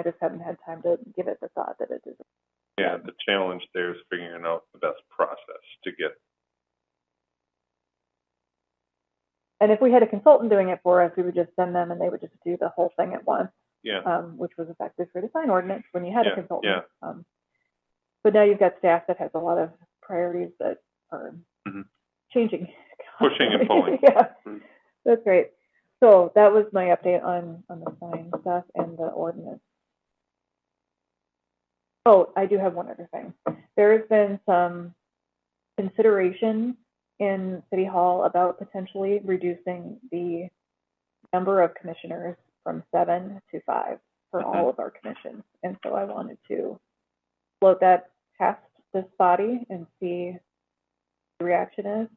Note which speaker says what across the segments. Speaker 1: I just haven't had time to give it the thought that it deserves.
Speaker 2: Yeah, the challenge there is figuring out the best process to get,
Speaker 1: And if we had a consultant doing it for us, we would just send them and they would just do the whole thing at once,
Speaker 2: yeah,
Speaker 1: um, which was effective for design ordinance when you had
Speaker 2: Yeah,
Speaker 1: a consultant.
Speaker 2: yeah.
Speaker 1: Um, but now you've got staff that has a lot of priorities that are
Speaker 2: Mhm.
Speaker 1: changing.
Speaker 2: Pushing and pulling.
Speaker 1: yeah,
Speaker 2: Mhm.
Speaker 1: that's great. So that was my update on, on the sign stuff and the ordinance. Oh, I do have one other thing. There has been some consideration in City Hall about potentially reducing the number of commissioners from seven to five for all of our commissions. And so I wanted to float that past this body and see what the reaction is.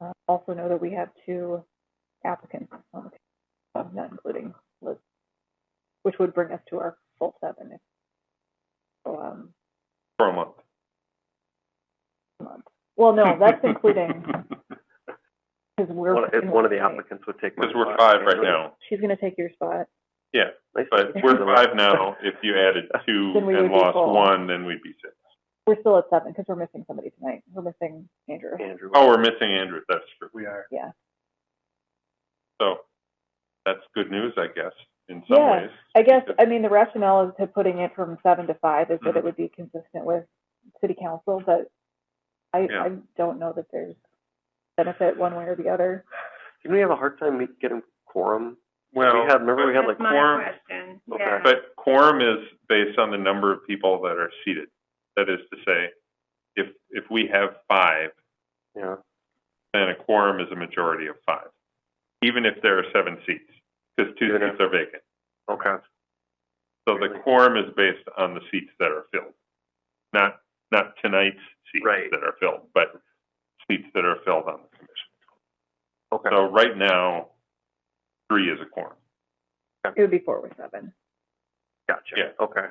Speaker 1: Uh, Also know that we have two applicants on the panel, not including Liz, which would bring us to our full seven. if- So, um,
Speaker 2: for a month.
Speaker 1: month. Well, no, that's including, because we're.
Speaker 3: One- If one of the applicants would take my
Speaker 2: Because we're
Speaker 3: spot.
Speaker 2: five right now,
Speaker 1: She's gonna take your spot.
Speaker 3: Nice.
Speaker 2: but we're five now. If you added two
Speaker 1: Then we would
Speaker 2: and
Speaker 1: be
Speaker 2: lost
Speaker 1: full.
Speaker 2: one, then we'd be six.
Speaker 1: We're still at seven, because we're missing somebody tonight. We're missing Andrew.
Speaker 3: Andrew.
Speaker 2: Oh, we're missing Andrew, that's true. We are.
Speaker 1: Yeah.
Speaker 2: So, that's good news, I guess, in some
Speaker 1: Yeah,
Speaker 2: ways.
Speaker 1: I guess,
Speaker 2: because-
Speaker 1: I mean, the rationale is to putting it from seven to five is that it
Speaker 2: Mhm.
Speaker 1: would be consistent with city council, but I,
Speaker 2: Yeah.
Speaker 1: I don't know that there's benefit one way or the other.
Speaker 3: Didn't we have a hard time me- getting quorum?
Speaker 2: Well.
Speaker 3: We had, remember we had like
Speaker 4: That's my
Speaker 2: quorum.
Speaker 4: question,
Speaker 3: Okay.
Speaker 4: yeah.
Speaker 2: But quorum is based on the number of people that are seated. That is to say, if, if we have five,
Speaker 3: Yeah,
Speaker 2: then a quorum is a majority of five, even if there are seven seats, because two
Speaker 3: Good enough.
Speaker 2: seats are vacant.
Speaker 3: okay.
Speaker 2: So the
Speaker 3: Really?
Speaker 2: quorum is based on the seats that are filled, not, not tonight's seats
Speaker 3: Right.
Speaker 2: that are filled, but seats that are filled on the commission.
Speaker 3: Okay.
Speaker 2: So right now, three is a quorum.
Speaker 1: It would be four with seven.
Speaker 3: Gotcha.
Speaker 2: Yeah.
Speaker 3: Okay.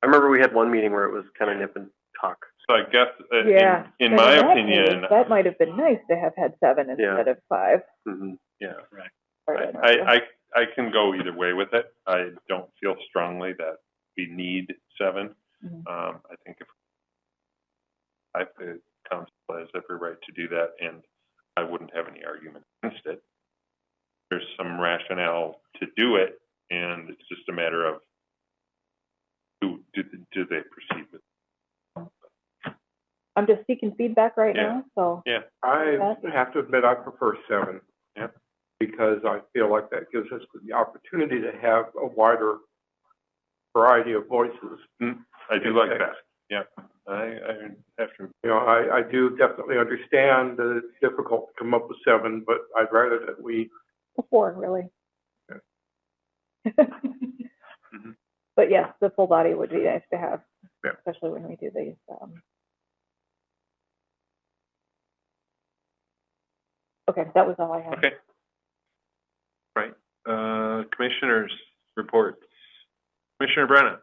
Speaker 3: I remember we had one meeting where it was kind of nip and tuck.
Speaker 2: So I guess, uh,
Speaker 1: Yeah.
Speaker 2: in, in
Speaker 1: But
Speaker 2: my
Speaker 1: that case,
Speaker 2: opinion,
Speaker 1: That might have been nice to have had seven
Speaker 3: Yeah.
Speaker 1: instead of five.
Speaker 3: hmm
Speaker 2: yeah.
Speaker 1: or
Speaker 2: I,
Speaker 1: whatever.
Speaker 2: I, I I can go either way with it. I don't feel strongly that we need seven.
Speaker 1: Mhm.
Speaker 2: Um, I think if, I, the council has every right to do that, and I wouldn't have any argument against it. There's some rationale to do it, and it's just a matter of, do, do, do they proceed with,
Speaker 1: I'm just seeking feedback right
Speaker 2: Yeah.
Speaker 1: now, so.
Speaker 5: I
Speaker 1: That is-
Speaker 5: have to admit, I prefer seven.
Speaker 2: Yep.
Speaker 5: Because I feel like that gives us the opportunity to have a wider variety of voices.
Speaker 2: I do like that, yeah. I, I have to,
Speaker 5: You know, I, I do definitely understand that it's difficult to come up with seven, but I'd rather that we,
Speaker 1: Four, really.
Speaker 5: Okay.
Speaker 1: But yes, the full body would be nice to have,
Speaker 5: Yeah.
Speaker 1: especially when we do these, um. Okay, that was all I had.
Speaker 2: okay. Right, uh, commissioners reports. Commissioner Brennan,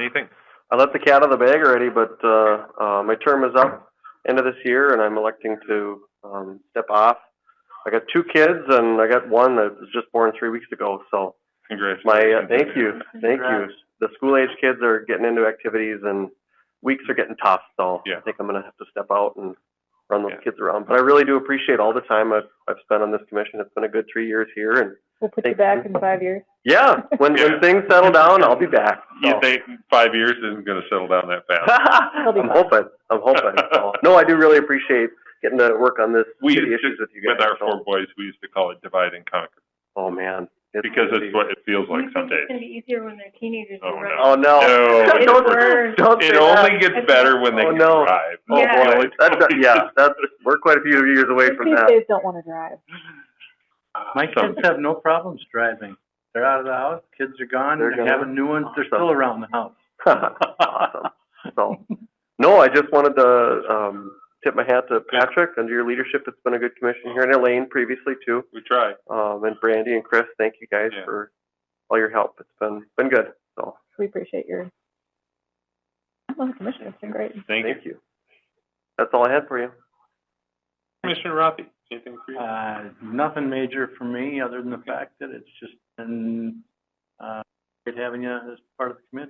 Speaker 2: anything?
Speaker 3: I let the cat out of the bag already, but, uh, uh, my term is up end of this year and I'm electing to, um, step off. I got two kids and I got one that was just born three weeks ago, so
Speaker 2: Congratulations.
Speaker 3: my, uh, thank you, thank you.
Speaker 5: Congrats.
Speaker 3: The school age kids are getting into activities and weeks are getting tough, so
Speaker 2: Yeah.
Speaker 3: I think I'm gonna have to step out and run those
Speaker 2: Yeah.
Speaker 3: kids around. But I really do appreciate all the time I've, I've spent on this commission. It's been a good three years here and,
Speaker 1: We'll put you back
Speaker 3: Thank you.
Speaker 1: in five years.
Speaker 3: yeah, when,
Speaker 2: Yeah.
Speaker 3: when things settle down, I'll be back.
Speaker 2: You
Speaker 3: so.
Speaker 2: think five years isn't going to settle down that fast?
Speaker 1: be
Speaker 3: I'm
Speaker 1: fine.
Speaker 3: hoping, I'm hoping. So, No, I do really appreciate getting to work on this
Speaker 2: We
Speaker 3: city
Speaker 2: used to-
Speaker 3: issues with you guys.
Speaker 2: With our four
Speaker 3: so-
Speaker 2: boys, we used to call it divide and conquer
Speaker 3: Oh, man.
Speaker 2: because
Speaker 3: gonna be-
Speaker 2: it's what it feels like
Speaker 4: You think
Speaker 2: some
Speaker 4: It's
Speaker 2: days.
Speaker 4: gonna be easier when they're teenagers.
Speaker 2: Oh,
Speaker 4: right?
Speaker 3: Oh, no.
Speaker 2: No,
Speaker 3: Don't-
Speaker 4: It's worse.
Speaker 3: Don't say
Speaker 2: It
Speaker 3: that.
Speaker 2: only gets better when they
Speaker 3: Oh,
Speaker 2: can
Speaker 3: no.
Speaker 2: drive.
Speaker 3: Oh,
Speaker 4: Yeah.
Speaker 3: boy. That's, yeah, that's, we're quite a few years away from
Speaker 1: These
Speaker 3: that.
Speaker 1: days don't wanna drive.
Speaker 6: My kids have no problems driving. They're out of the house, kids are gone,
Speaker 3: They're gone.
Speaker 6: they're having new ones, they're still around the house.
Speaker 3: awesome. So, no, I just wanted to um, tip my hat to Patrick. Under your leadership, it's been a good commission here in Elaine previously too,
Speaker 2: We try.
Speaker 3: um, and Brandy and Chris. Thank you guys
Speaker 2: Yeah.
Speaker 3: for all your help. It's been been good. So,
Speaker 1: We appreciate your. I'm on the commission, it's been great.
Speaker 2: Thank you.
Speaker 3: That's all I had for you.
Speaker 2: Commissioner Rothie, anything for you?
Speaker 6: Uh, nothing major for me, other than the fact that it's just been, uh, Good having you as part of the committee.